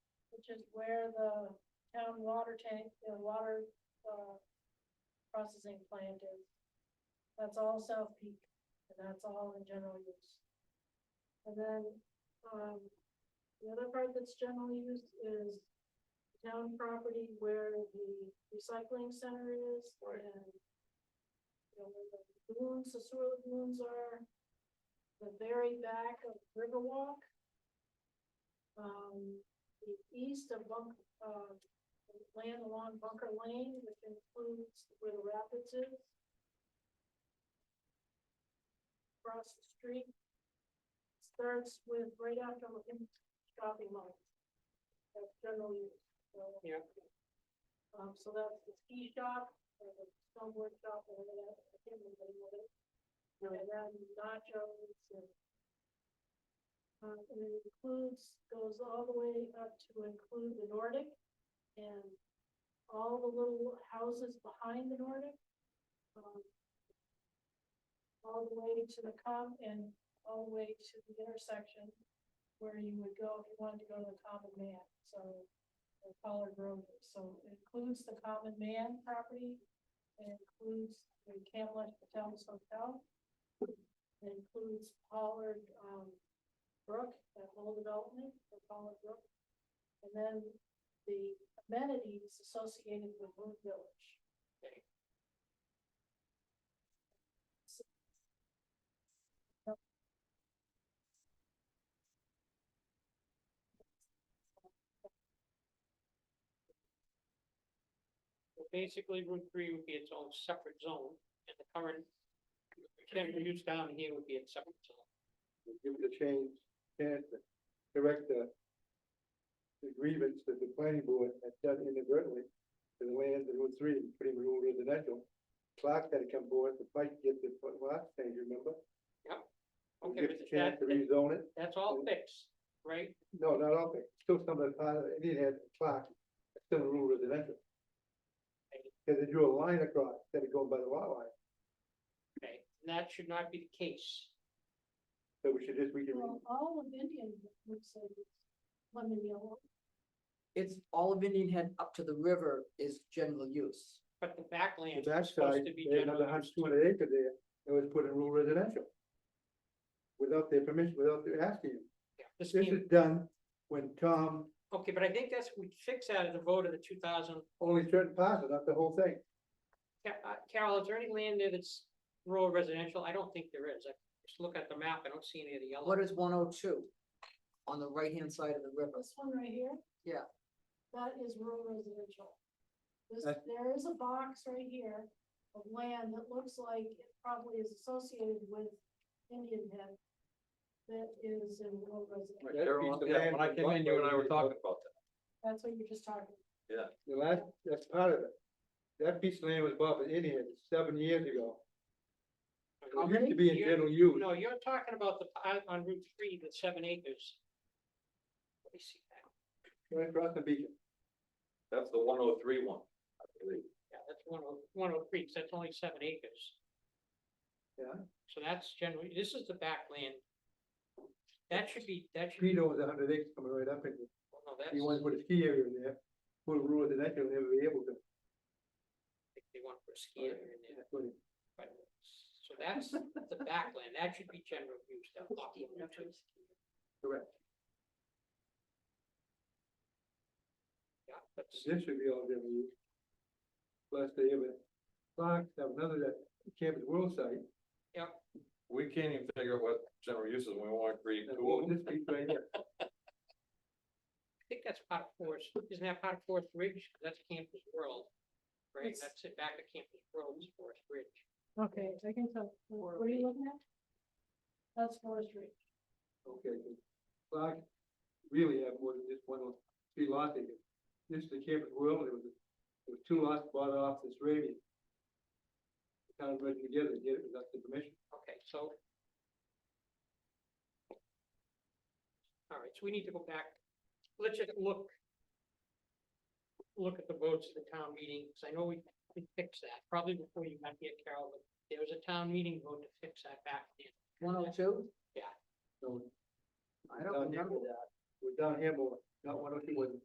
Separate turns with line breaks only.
which is where the town water tank, the water, uh, processing plant is. That's all South Peak, and that's all in general use. And then, um, the other part that's general use is town property where the recycling center is
Right.
and you know, where the lagoons, the sewer lagoons are, the very back of Riverwalk. Um, the east of Bunk, uh, land along Bunker Lane, which includes where the rapids is. Across the street. Starts with right after him shopping mall. That's general use, so.
Yeah.
Um, so that's the ski shop, or the snowboard shop, or whatever, I can't remember what it is. And then nachos and. Uh, and it includes, goes all the way up to include the Nordic and all the little houses behind the Nordic. um, All the way to the com and all the way to the intersection where you would go if you wanted to go to the common man, so. Or Pollard Road, so it includes the common man property, it includes the Camlet Hotels Hotel. It includes Pollard, um, Brook, that whole development for Pollard Brook. And then the amenities associated with Moon Village.
Okay. So Basically, Route three would be its own separate zone, and the current general use down here would be its separate zone.
and give it a change, chance to correct the the grievance that the planning board had done inadvertently to the land in Route Three, putting the rural residential. Clark had to come forward to fight to get the lot change, remember? We
Okay,
give
but
a chance
that,
to
that-
rezone it,
that's all fixed, right?
no, not all, of it. still some of the part, of it did have Clark, it's still rural residential. Cause they drew a line across, instead of going by the lot line,
Okay, and that should not be the case.
so we should just, we can,
Well, all of Indian looks like it's lemon yellow.
It's all of Indian Head up to the river is general use.
But the backland
the
is
backside,
supposed to be
they had another
general.
hundred, two hundred acre there, it was put in rural residential. Without their permission, without their asking.
Yeah, this
This
came-
is done when Tom,
Okay, but I think that's, we fix that at the vote of the two thousand,
only certain parts, not the whole thing.
uh, Carol, is there any land there that's rural residential? I don't think there is. I just look at the map, I don't see any of the yellow.
What is one oh two? On the right-hand side of the river.
This one right here?
Yeah.
That is rural residential. This,
That-
there is a box right here of land that looks like it probably is associated with Indian Head. That is in rural residential.
That
Carol,
piece of
yeah,
land
when I
was
came
bought
in, you and
by
I were
the-
talking about
That's what you're just talking.
The last, that's part of it. That piece of land was bought by Indians seven years ago.
How
It used to
many?
be in
You're-
general use.
No, you're talking about the, pi- on Route three, the seven acres. Let me see that.
Right across the beach.
that. That's the one oh three one, I believe.
Yeah, that's one oh, one oh three, 'cause that's only seven acres.
Yeah.
So that's generally, this is the backland. That should be, that should be,
Speedo was a hundred acres coming right up in there.
well, no, that's,
You want to put a ski area in there, put a rural residential, they'll never be able to.
they want to put a ski area in there.
That's what it-
But, so that's the backland, that should be general use, that block of Route two.
Correct.
Yeah, that's,
This should be all general use. Plus they have a, Clark have another that Campus World site.
We can't even figure out what general uses, we wanna create
and
two of them.
This piece right here.
I think that's part of Forest, isn't that part of Forest Ridge, 'Cause that's Campus World, right,
It's-
that's it, back at Campus World, is Forest Ridge.
Okay, I can tell. What are you looking at? That's forestry.
Okay, good. Clark really have more than just one, lot- three lots in it. This is the Cape World, it was, it was two lots bought off this radius. The Town merged together, to get it without the permission.
Okay, so. All right, so we need to go back, let's just look. Look at the votes of the town meeting, because I know we, we fixed that, probably before you got here, Carol, but there was a town meeting vote to fix that back then.
One oh two?
So
I don't remember that.
we're down here more, not one oh two,